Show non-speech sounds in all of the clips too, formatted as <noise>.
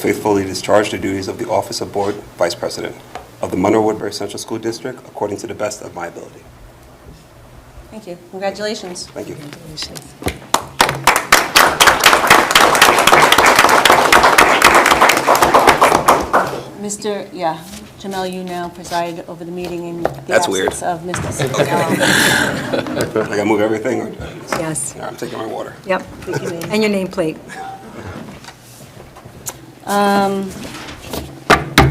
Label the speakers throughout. Speaker 1: faithfully discharge the duties of the office of Board Vice President of the Monroe Woodbury Central School District according to the best of my ability.
Speaker 2: Thank you. Congratulations.
Speaker 1: Thank you.
Speaker 2: Mr., yeah, Jamel, you now preside over the meeting in the
Speaker 1: That's weird.
Speaker 2: absence of Mr.
Speaker 1: <laughs>
Speaker 2: Sigal.
Speaker 1: Like I move everything, or
Speaker 3: Yes,
Speaker 1: All right, I'm taking my water.
Speaker 3: yep. And your nameplate.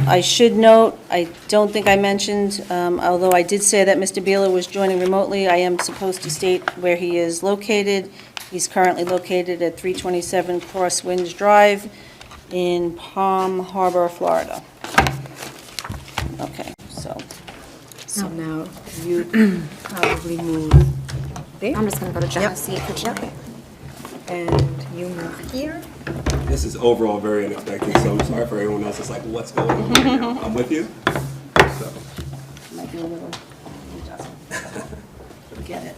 Speaker 2: I should note, I don't think I mentioned, um, although I did say that Mr. Beeler was joining remotely, I am supposed to state where he is located. He's currently located at 327 Crosswinds Drive in Palm Harbor, Florida. Okay, so,
Speaker 3: So now
Speaker 4: <clears throat>
Speaker 3: you probably move there,
Speaker 4: I'm just gonna go to Jenna's seat for tonight.
Speaker 3: and you move here.
Speaker 1: This is overall very unexpected, so I'm sorry for everyone else that's like, what's going on right
Speaker 2: <laughs>
Speaker 1: now? I'm with you. So,
Speaker 2: might be a little, get it.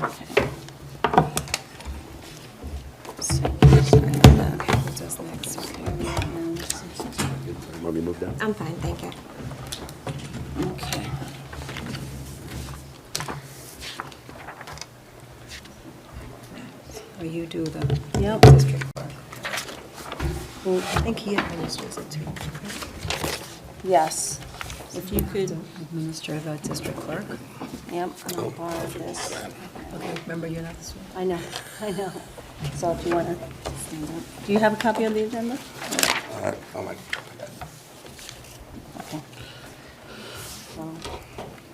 Speaker 2: Okay. So,
Speaker 3: Who's this next? Okay.
Speaker 5: Want me to move down?
Speaker 4: I'm fine, thank you.
Speaker 2: Okay.
Speaker 3: Or you do the
Speaker 2: Yep.
Speaker 3: district clerk. Well, I think he administers it too.
Speaker 2: Yes, if you could,
Speaker 3: Administer the district clerk.
Speaker 2: yep, I'm
Speaker 1: Oh.
Speaker 2: gonna borrow this.
Speaker 3: Okay, remember, you're not this one.
Speaker 2: I know, I know. So if you wanna stand up. Do you have a copy of the agenda?
Speaker 1: all right, oh my,
Speaker 2: Okay. So,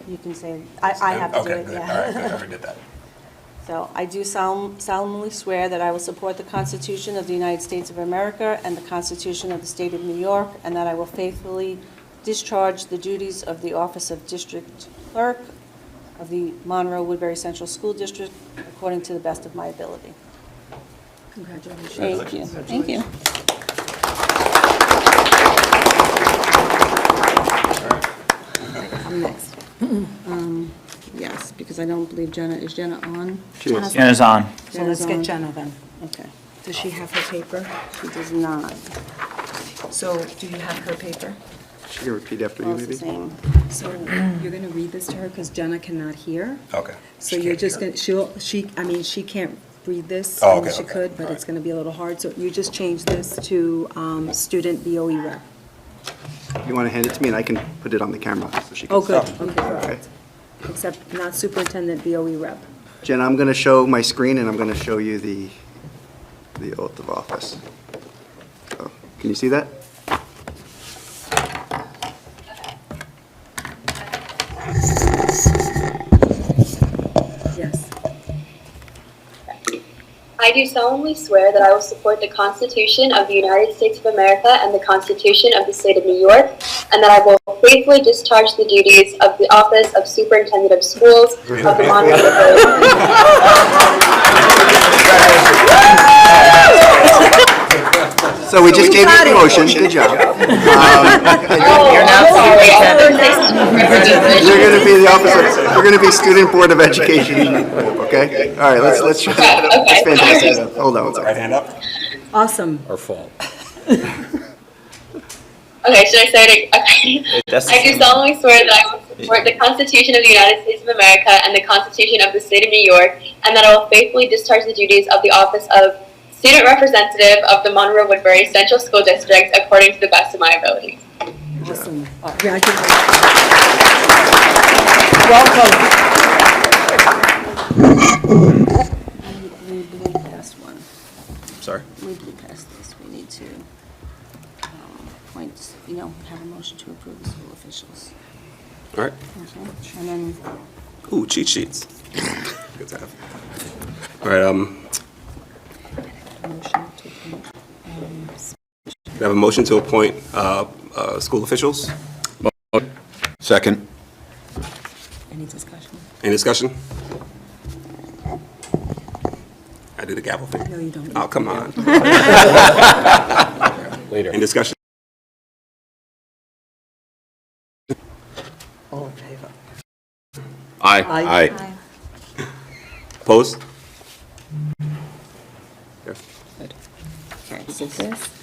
Speaker 2: You can say, I, I have to do
Speaker 1: Okay,
Speaker 2: it,
Speaker 1: good.
Speaker 2: yeah.
Speaker 1: All right, good, I already did that.
Speaker 2: So I do solemn- solemnly swear that I will support the Constitution of the United States of America and the Constitution of the State of New York, and that I will faithfully discharge the duties of the office of District Clerk of the Monroe Woodbury Central School District according to the best of my ability.
Speaker 3: Congratulations.
Speaker 2: Thank you. Thank you.
Speaker 3: I'm next.
Speaker 2: Um, Yes, because I don't believe Jenna, is Jenna on?
Speaker 6: Jenna's on.
Speaker 3: So let's
Speaker 4: um,
Speaker 3: get Jenna then.
Speaker 2: Okay.
Speaker 3: Does she have her paper?
Speaker 2: She does not.
Speaker 3: So do you have her paper?
Speaker 5: She can repeat after
Speaker 2: Well,
Speaker 5: you,
Speaker 2: it's the
Speaker 5: maybe?
Speaker 2: same.
Speaker 3: So you're going to read this to her because Jenna cannot hear.
Speaker 1: Okay.
Speaker 3: So
Speaker 1: She
Speaker 3: you're
Speaker 1: can't
Speaker 3: just
Speaker 1: hear.
Speaker 3: going, to she'll, she, I mean, she can't read this.
Speaker 1: Oh,
Speaker 3: I mean,
Speaker 1: okay,
Speaker 3: She
Speaker 1: okay.
Speaker 3: could, but
Speaker 1: All
Speaker 3: it's
Speaker 1: right.
Speaker 3: going to be a little hard. So you just change this to um, student BOE rep.
Speaker 5: You want to hand it to me, and I can put it on the camera, so she can...
Speaker 3: Oh, good.
Speaker 5: see.
Speaker 3: Okay,
Speaker 5: Okay.
Speaker 3: perfect. Except not superintendent BOE rep.
Speaker 5: Jen, I'm going to show my screen, and I'm going to show you the, the oath of office. So, Can you see that?
Speaker 3: Yes.
Speaker 7: I do solemnly swear that I will support the Constitution of the United States of America and the Constitution of the State of New York, and that I will faithfully discharge the duties of the Office of Superintendent of Schools of the
Speaker 6: <laughs>
Speaker 7: Monroe Borough.
Speaker 5: So we just gave you a promotion, good job.
Speaker 7: You're not
Speaker 5: <laughs> You're going to be the office of, you're going to be Student Board of Education, okay? All right, let's, let's try that up. That's fantastic. Hold on one
Speaker 1: Right
Speaker 5: second.
Speaker 1: hand up?
Speaker 3: Awesome.
Speaker 7: Oh, Okay, should I say it? ag- Okay.
Speaker 6: That's the
Speaker 7: I do
Speaker 6: same.
Speaker 7: solemnly swear that I will support the Constitution of the United States of America and the Constitution of the State of New York, and that I will faithfully discharge the duties of the Office of Student Representative of the Monroe Woodbury Central School District according to the best of my ability.
Speaker 3: Awesome.
Speaker 2: uh,
Speaker 3: Congratulations.
Speaker 2: We blew past one.
Speaker 1: Sorry.
Speaker 2: We blew past this. We need to um, appoint, you know, have a motion to approve the school officials.
Speaker 1: All right.
Speaker 2: Okay, And then, um,
Speaker 1: Ooh, cheat sheets. <laughs> Good to have. All right, um,
Speaker 3: Motion to appoint,
Speaker 1: we
Speaker 3: um,
Speaker 1: have a motion to appoint uh, uh, school officials.
Speaker 8: Second.
Speaker 3: Any discussion?
Speaker 1: Any discussion? I do the gavel
Speaker 3: No,
Speaker 1: thing.
Speaker 3: you don't.
Speaker 1: Oh, come on. Later. Any discussion?
Speaker 3: All in favor?
Speaker 8: Aye.
Speaker 3: Aye.
Speaker 1: Opposed? Okay.
Speaker 2: okay. Is it this?